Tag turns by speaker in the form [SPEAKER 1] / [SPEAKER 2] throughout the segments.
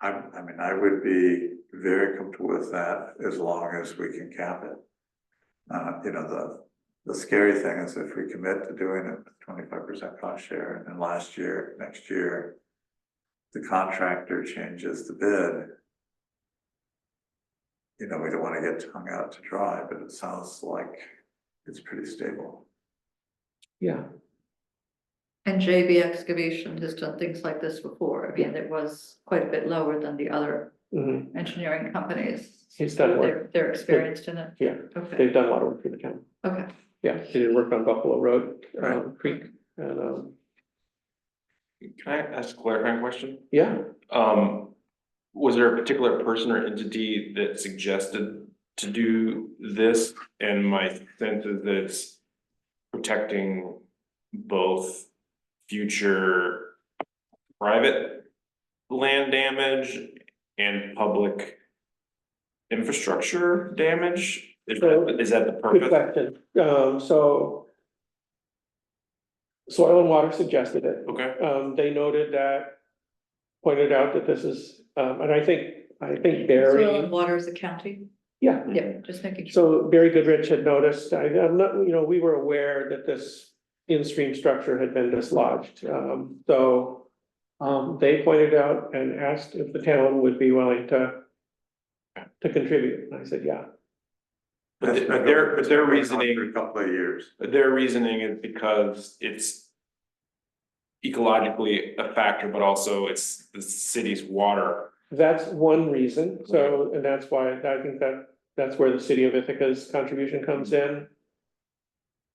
[SPEAKER 1] I, I mean, I would be very comfortable with that as long as we can cap it. Uh, you know, the, the scary thing is if we commit to doing it with twenty-five percent cost share and then last year, next year. The contractor changes the bid. You know, we don't wanna get hung out to dry, but it sounds like it's pretty stable.
[SPEAKER 2] Yeah,
[SPEAKER 3] And JB Excavation has done things like this before. I mean, it was quite a bit lower than the other
[SPEAKER 2] mhm.
[SPEAKER 3] engineering companies.
[SPEAKER 2] He's done work.
[SPEAKER 3] Mm-hmm. They're, they're experienced in it.
[SPEAKER 2] yeah,
[SPEAKER 3] Okay,
[SPEAKER 2] they've done a lot of work for the town.
[SPEAKER 3] okay.
[SPEAKER 2] Yeah, they did work on Buffalo Road, um,
[SPEAKER 1] Right.
[SPEAKER 2] Creek, and, um,
[SPEAKER 4] Can I ask a clarifying question?
[SPEAKER 2] yeah,
[SPEAKER 4] Um, was there a particular person or entity that suggested to do this? And my sense is that it's protecting both future private land damage and public infrastructure damage? Is that, is that the
[SPEAKER 2] good
[SPEAKER 4] purpose?
[SPEAKER 2] question. Um, so Soil and Water suggested it.
[SPEAKER 4] Okay,
[SPEAKER 2] Um, they noted that, pointed out that this is, um, and I think, I think Barry.
[SPEAKER 3] Soil and water is a county.
[SPEAKER 2] Yeah,
[SPEAKER 3] Yeah, just making sure.
[SPEAKER 2] so Barry Goodrich had noticed, I, I'm not, you know, we were aware that this in-stream structure had been dislodged, um, so. Um, they pointed out and asked if the town would be willing to. To contribute, and I said, yeah,
[SPEAKER 4] but
[SPEAKER 1] That's
[SPEAKER 4] th- but
[SPEAKER 1] been
[SPEAKER 4] their,
[SPEAKER 1] going
[SPEAKER 4] but their
[SPEAKER 1] on for
[SPEAKER 4] reasoning.
[SPEAKER 1] A couple of years.
[SPEAKER 4] Their reasoning is because it's. Ecologically a factor, but also it's the city's water.
[SPEAKER 2] that's one reason, so, and that's why, I think that, that's where the city of Ithaca's contribution comes in.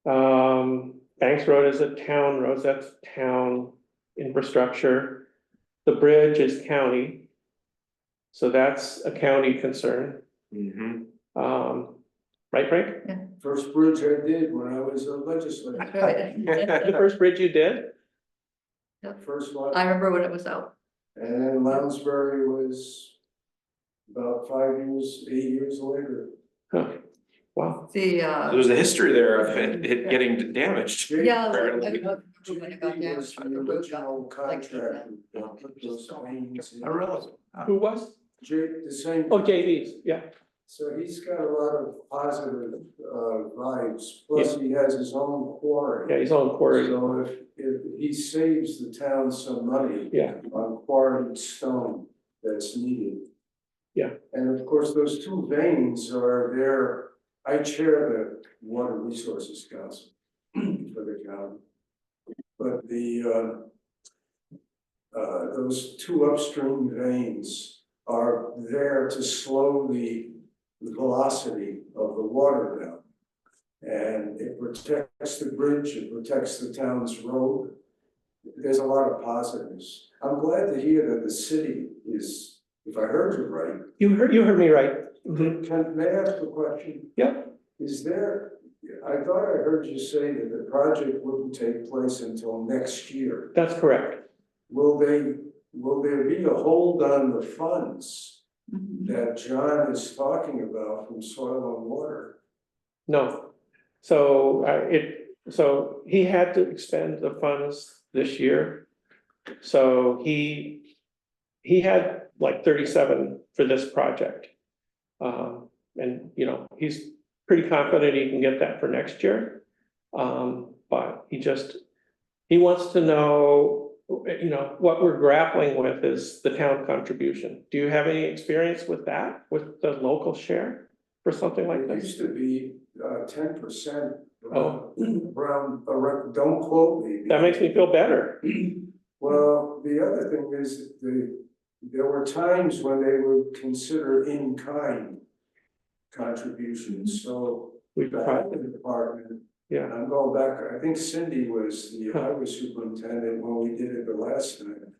[SPEAKER 2] Um, Banks Road is a town road, so that's town infrastructure. The bridge is county. So that's a county concern,
[SPEAKER 1] Mm-hmm.
[SPEAKER 2] um, right, Frank?
[SPEAKER 5] First bridge I did when I was a legislator,
[SPEAKER 3] I
[SPEAKER 2] The first bridge you did,
[SPEAKER 5] first one,
[SPEAKER 3] remember when it was out.
[SPEAKER 5] and then Lounsbury was about five years, eight years later.
[SPEAKER 2] Huh. wow,
[SPEAKER 3] The,
[SPEAKER 4] So
[SPEAKER 3] uh,
[SPEAKER 4] There's a history there of it it getting damaged.
[SPEAKER 5] J-
[SPEAKER 3] yeah.
[SPEAKER 4] Fair
[SPEAKER 3] I
[SPEAKER 4] enough.
[SPEAKER 3] remember when it got
[SPEAKER 5] JP
[SPEAKER 3] down,
[SPEAKER 5] was the
[SPEAKER 3] the road got-
[SPEAKER 5] original
[SPEAKER 3] like he said.
[SPEAKER 5] contractor that put those lanes in.
[SPEAKER 1] I realize.
[SPEAKER 2] who was,
[SPEAKER 5] J, the same.
[SPEAKER 2] oh, JV's, yeah,
[SPEAKER 5] So he's got a lot of positive, uh, vibes, plus he has his own quarry.
[SPEAKER 2] yeah, he's on quarry,
[SPEAKER 5] So if, if he saves the town some money.
[SPEAKER 2] yeah,
[SPEAKER 5] on quarried stone that's needed.
[SPEAKER 2] Yeah.
[SPEAKER 5] And of course, those two veins are there, I chair the Water Resources Council for the county. But the uh, uh, those two upstream veins are there to slow the the velocity of the water down. And it protects the bridge, it protects the town's road there's a lot of positives. I'm glad to hear that the city is, if I heard you right,
[SPEAKER 2] you heard, you heard me right, Mhm.
[SPEAKER 5] can, may I ask a question?
[SPEAKER 2] yeah,
[SPEAKER 5] Is there, I thought I heard you say that the project wouldn't take place until next year.
[SPEAKER 2] that's correct,
[SPEAKER 5] Will they, will there be a hold on the funds
[SPEAKER 3] Mhm.
[SPEAKER 5] that John is talking about from soil and water?
[SPEAKER 2] no. So, uh, it, so he had to expend the funds this year, so he, he had like thirty-seven for this project. Um, and, you know, he's pretty confident he can get that for next year. Um, but he just, he wants to know, you know, what we're grappling with is the town contribution. Do you have any experience with that, with the local share for something like
[SPEAKER 5] It
[SPEAKER 2] this?
[SPEAKER 5] used to be uh, ten percent.
[SPEAKER 2] Oh.
[SPEAKER 5] Around, around, don't quote me.
[SPEAKER 2] That makes me feel better.
[SPEAKER 5] Well, the other thing is the, there were times when they would consider in-kind contributions, so
[SPEAKER 2] We
[SPEAKER 5] the
[SPEAKER 2] tried,
[SPEAKER 5] highway department,
[SPEAKER 2] yeah,
[SPEAKER 5] I'm going back, I think Cindy was the highway superintendent when we did it the last time.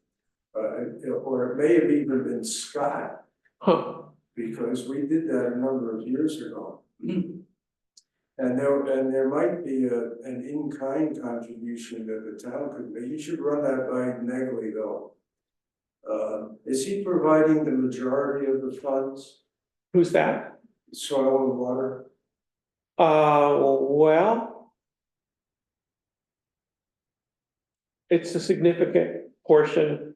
[SPEAKER 5] Uh, or it may have even been Scott,
[SPEAKER 2] huh,
[SPEAKER 5] because we did that a number of years ago.
[SPEAKER 3] Mm-hmm.
[SPEAKER 5] And there, and there might be a, an in-kind contribution that the town could make, you should run that by Negley though. Uh, is he providing the majority of the funds,
[SPEAKER 2] who's that?
[SPEAKER 5] soil and water?
[SPEAKER 2] Uh, well. It's a significant portion